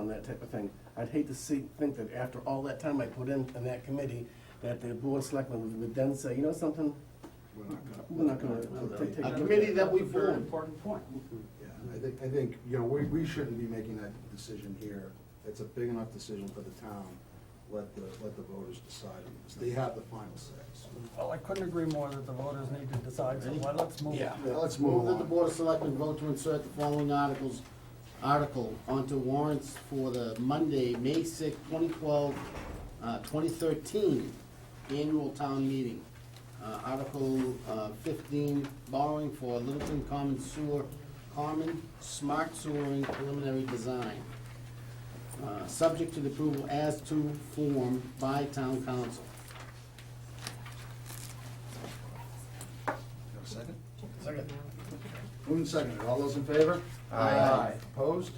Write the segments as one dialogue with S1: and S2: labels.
S1: that type of thing. I'd hate to see, think that after all that time I put in, in that committee, that the board of selectmen would- would then say, you know something?
S2: We're not gonna-
S1: We're not gonna take- take-
S3: A committee that we
S4: That's a very
S3: formed.
S4: Important point.
S2: Yeah, I think, I think, you know, we, we shouldn't be making that decision here. It's a big enough decision for the town. Let the, let the voters decide on this. They have the final say. so.
S5: Well, I couldn't agree more that the voters need to decide, so why let's move.
S2: Yeah, let's
S3: Move
S2: move
S3: that the
S2: on.
S3: Board of Selectmen vote to insert the following articles, article onto warrants for the Monday, May sixth, twenty twelve, uh, twenty thirteen annual town meeting. Uh, article, uh, fifteen, borrowing for Littleton Common Sewer, Common Smart Sewering Preliminary Design. Uh, subject to the approval as to form by town council.
S2: Have a Second?
S5: Second.
S2: Moving second. All those in favor? Aye. Opposed?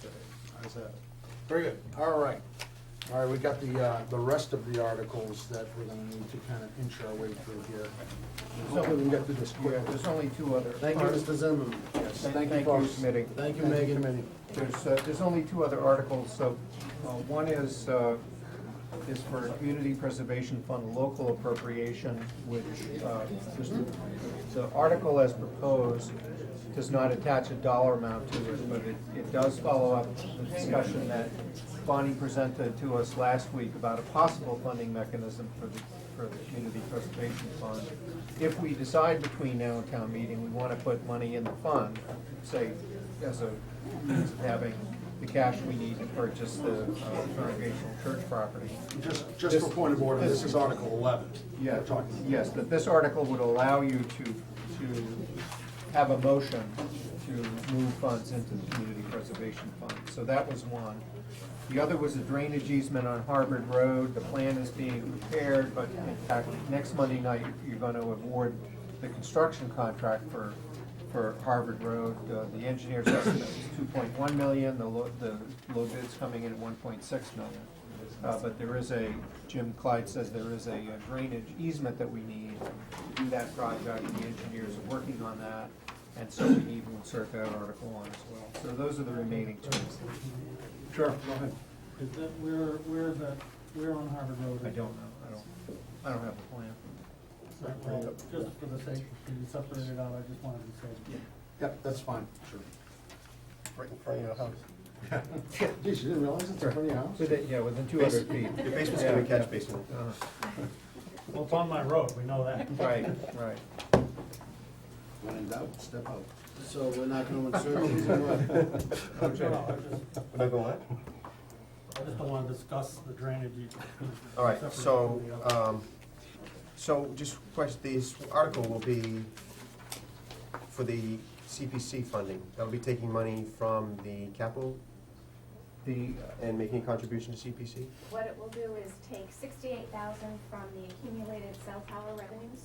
S2: Okay, Ayes have it. Very good. All right. All right, we got the, uh, the rest of the articles that we're gonna need to kind of inch our way through here. Hopefully we can get through this quick.
S6: Yeah, there's only two other.
S3: Thank you, Mr. Zimmerman.
S6: Yes,
S2: Thank
S6: Thank
S2: you,
S6: you,
S2: folks.
S6: committee.
S3: Thank you, Megan.
S2: committee.
S6: There's, uh, there's only two other articles, so, uh, one is, uh, is for Community Preservation Fund local appropriation, which, uh, just, the article as proposed does not attach a dollar amount to it, but it, it does follow up the discussion that Bonnie presented to us last week about a possible funding mechanism for the, for the Community Preservation Fund. If we decide between now and town meeting, we wanna put money in the fund, say, as a means of having the cash we need to purchase the uh, congregational church property.
S2: Just, just for point of order, this is Article eleven.
S6: Yeah,
S2: We're talking about.
S6: yes, but this article would allow you to, to have a motion to move funds into the community preservation fund. So that was one. The other was a drainage easement on Harvard Road. The plan is being prepared, but in fact, next Monday night, you're gonna award the construction contract for, for Harvard Road. Uh, The engineer's estimate is two point one million, the low, the low bid's coming in at one point six million. Uh, but there is a, Jim Clyde says there is a uh, drainage easement that we need to do that project, and the engineers are working on that, and so we need to insert that article on as well. So those are the remaining two.
S2: Sure, go ahead.
S5: Is that, where, where the, where on Harvard Road?
S6: I don't know, I don't, I don't have a plan.
S5: Well, Just for the sake, can you separate it out, I just wanted to say.
S2: Yep, that's fine, sure.
S1: Right in front of your house.
S2: Geez, you didn't realize it's in front of your house?
S6: Within, yeah, within two hundred feet.
S1: Your basement's gonna be catch basin.
S6: Uh-huh.
S5: Well, it's on my road, we know that.
S6: Right, right.
S2: When in doubt, step out.
S3: So we're not gonna insert these in order.
S5: No, no, I just,
S4: Am I going on?
S5: I just don't wanna discuss the drainage. easement.
S4: All right,
S5: Separate
S4: so,
S5: from the other.
S6: uh,
S4: um, so just question, this article will be for the CPC funding. That'll be taking money from the capital
S6: The,
S4: and making a contribution to CPC?
S7: What it will do is take sixty-eight thousand from the accumulated cell tower revenues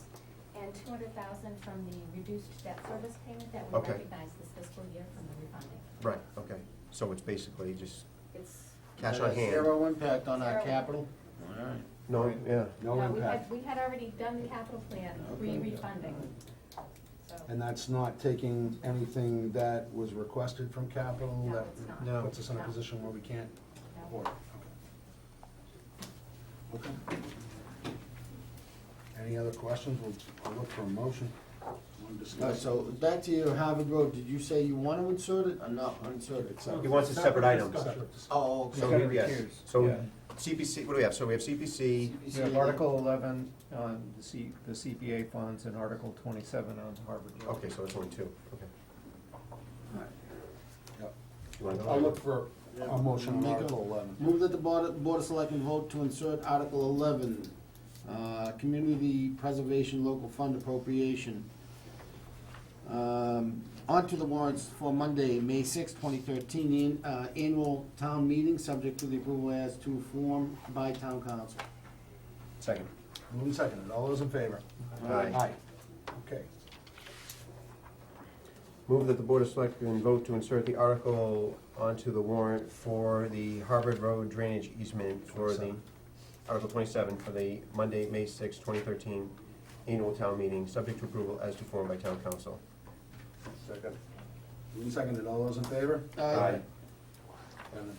S7: and two hundred thousand from the reduced debt service payment that we
S4: Okay.
S7: recognize this fiscal year from the refunding.
S4: Right, okay. So it's basically just
S7: It's,
S4: cash on hand?
S3: Zero impact on our
S7: Zero.
S3: capital.
S4: No, yeah.
S2: No
S7: no, uh, we
S2: impact.
S7: had, we had already done the capital plan, re-refunding, so.
S2: And that's not taking anything that was requested from capital?
S7: No,
S2: that
S7: it's not.
S4: No.
S2: Puts us in a
S7: No.
S2: position where we can't
S7: no.
S2: afford it? Okay. Okay. Any other questions? We'll I'll look for a motion. Wanna
S3: All right,
S2: discuss?
S3: so back to your Harvard Road, did you say you wanna insert it or not insert it?
S4: He wants a separate item.
S5: discussion.
S3: Oh,
S4: So,
S3: okay.
S4: yes, so CPC, what do we have? So we have CPC,
S6: we have Article eleven on the C, the CPA funds and Article twenty-seven on Harvard Road.
S4: okay, so it's only two, okay.
S2: Yep.
S4: You wanna go?
S2: I'll look for a motion on
S3: Make a-
S2: Article eleven.
S3: Move that the Board, of- Board of Selectmen vote to insert Article eleven, uh, Community Preservation Local Fund Appropriation. Um, onto the warrants for Monday, May sixth, twenty thirteen, uh, annual town meeting, subject to the approval as to form by town council.
S4: Second.
S2: Moving seconded. All those in favor?
S4: Aye.
S2: Aye. Okay.
S4: Move that the Board of Selectmen vote to insert the article onto the warrant for the Harvard Road drainage easement for the,
S2: 27.
S4: Article twenty-seven, for the Monday, May sixth, twenty thirteen annual town meeting, subject to approval as to form by town council.
S2: Second. Moving seconded. All those in favor?
S3: Aye.